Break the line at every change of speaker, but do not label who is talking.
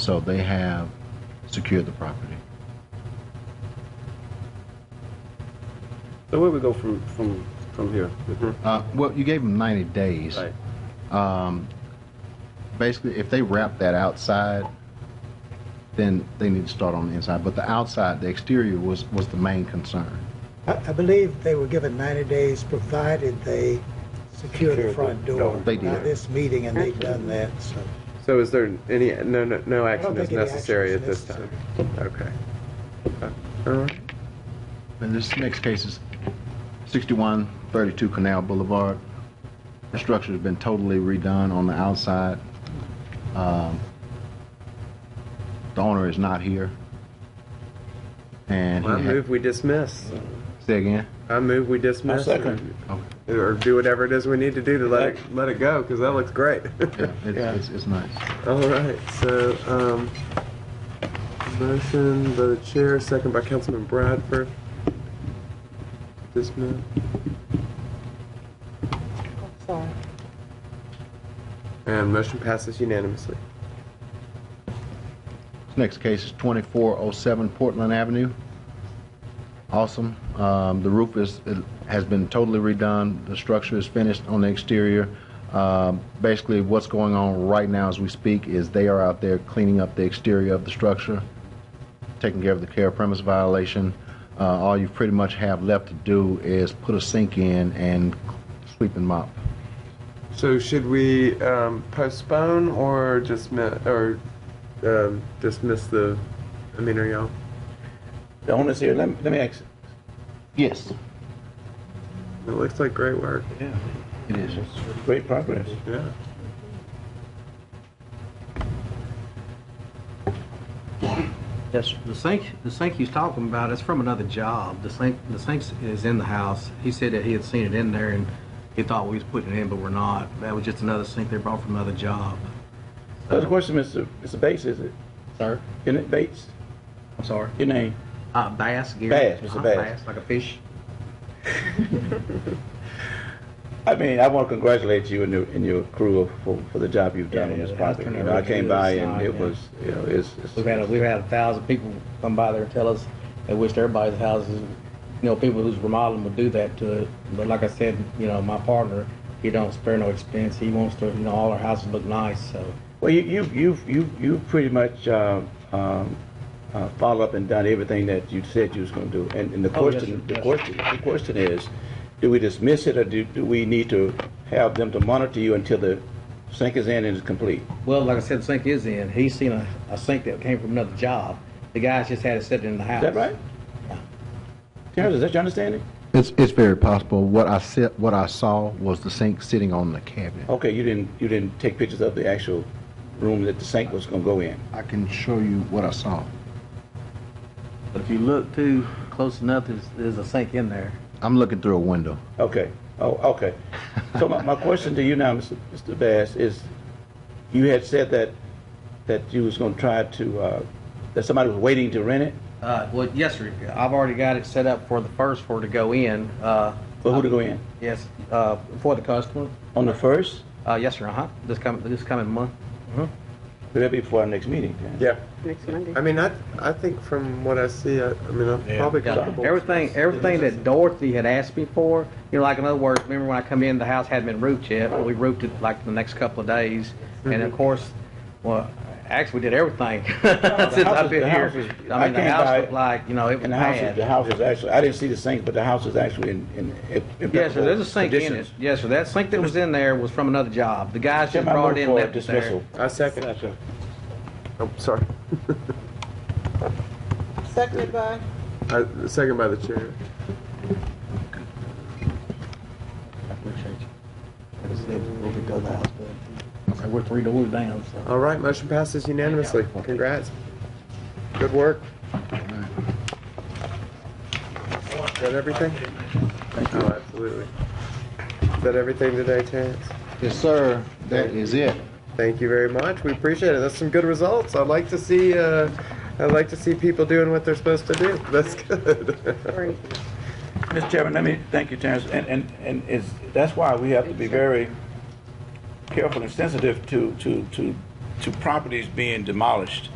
So they have secured the property.
So where we go from, from, from here? Mhm.
Uh, well, you gave them 90 days.
Right.
Um, basically, if they wrap that outside, then they need to start on the inside. But the outside, the exterior was, was the main concern.
I I believe they were given 90 days, provided they secure
Secure
the
the
front
door.
door.
They did.
By this meeting, and they've done that, so.
So is there any, no, no, no
I
action is
don't think any action
necessary
is
at this time? Okay. Okay. All right.
And this next case is 6132 Canal Boulevard. The structure's been totally redone on the outside. Um, The owner is not here. And
I
he ha-
move we dismiss.
Say again?
I move we dismiss.
I second.
Or or do whatever it is we need to do to let it, let it go, because that looks great.
Yeah, it's,
Yeah.
it's, it's nice.
All right, so, um, motion by the chair, second by Councilman Bradford. Dismiss.
Sorry.
And motion passes unanimously.
This next case is 2407 Portland Avenue. Awesome. Um, the roof is, it has been totally redone. The structure is finished on the exterior. Um, basically, what's going on right now as we speak is they are out there cleaning up the exterior of the structure, taking care of the care premise violation. Uh, all you pretty much have left to do is put a sink in and sweep and mop.
So should we, um, postpone or dismiss, or, um, dismiss the, I mean, are y'all?
The owner's here, let me, let me ask.
Yes,
It looks like great work,
Yeah.
it is.
Great progress.
yeah.
Yes.
The sink, the sink he's talking about is from another job. The sink, the sink is in the house. He said that he had seen it in there and he thought we was putting it in, but we're not. That was just another sink they brought from another job.
So the question, Mr. Mr. Bates, is it,
Sir?
isn't it Bates?
I'm sorry.
Your name?
Uh, bass, Gary.
Bass, Mr.
Uh,
Bass.
Like a fish.
I mean, I want to congratulate you and your, and your crew for, for the job you've done
Yeah,
on this
yeah,
project.
that's
You know, I came by and it
Yeah.
was, you know, it's,
We've had, a-
it's,
we've had a thousand people come by there and tell us they wished everybody's houses, you know, people who's remodeling would do that to it. But like I said, you know, my partner, he don't spare no expense. He wants to, you know, all our houses look nice, so.
well, you, you, you've, you, you've pretty much, um, um, uh, followed up and done everything that you said you was going to do. And, and the
Oh, yes,
question,
sir.
the
Yes,
question, the question is, do we dismiss it or do, do we need to have them to monitor you until the sink is in and it's complete?
Well, like I said, the sink is in. He's seen a, a sink that came from another job. The guy's just had it set in the house.
Is that right? Terrence, is that your understanding?
It's, it's very possible. What I said, what I saw was the sink sitting on the cabinet.
Okay, you didn't, you didn't take pictures of the actual room that the sink was gonna go in.
I can show you what I saw.
But if you look too close enough, there's, there's a sink in there.
I'm looking through a window.
Okay, oh, okay. So my, my question to you now, Mr. Mr. Bass, is you had said that, that you was gonna try to, uh, that somebody was waiting to rent it?
Uh, well, yes, sir. I've already got it set up for the first floor to go in. Uh,
For who to go in?
yes, uh, for the customer.
On the first?
Uh, yes, sir. Uh huh. This coming this coming month.
Could that be before our next meeting, Terrence?
Yeah.
Next Monday.
I mean, I, I think from what I see, I, I mean, I'm probably
Yeah.
comfortable.
Everything, everything that Dorothy had asked me for, you know, like in other words, remember when I come in, the house hadn't been roofed yet, but we roofed it like the next couple of days. And of course, well, actually, we did everything since
house
I've
is-
been
the
here.
house is- I
I mean, the
came by-
house looked like, you know, it was
And the house, is- the
bad.
house is actually, I didn't see the sink, but the house is actually in, in impeccable
Yes, sir, there's a sink in it.
conditions.
Yes, sir, that sink that was in there was from another job. The guys just
Chairman, I
brought
move
it in,
for
left it there.
dismissal.
I second. I'm sorry.
Seconded by?
I, second by the chair.
We're three doors down, so.
All right, motion passes unanimously. Congrats. Good work. Is that everything? Thank you. Oh, absolutely. Is that everything today, Terrence?
Yes, sir. That is it.
Thank you very much. We appreciate it. That's some good results. I'd like to see, uh, I'd like to see people doing what they're supposed to do. That's good.
Three.
Mr. Chairman, let me, thank you, Terrence, and, and, and it's, that's why we have to be very careful and sensitive to, to, to, to properties being demolished.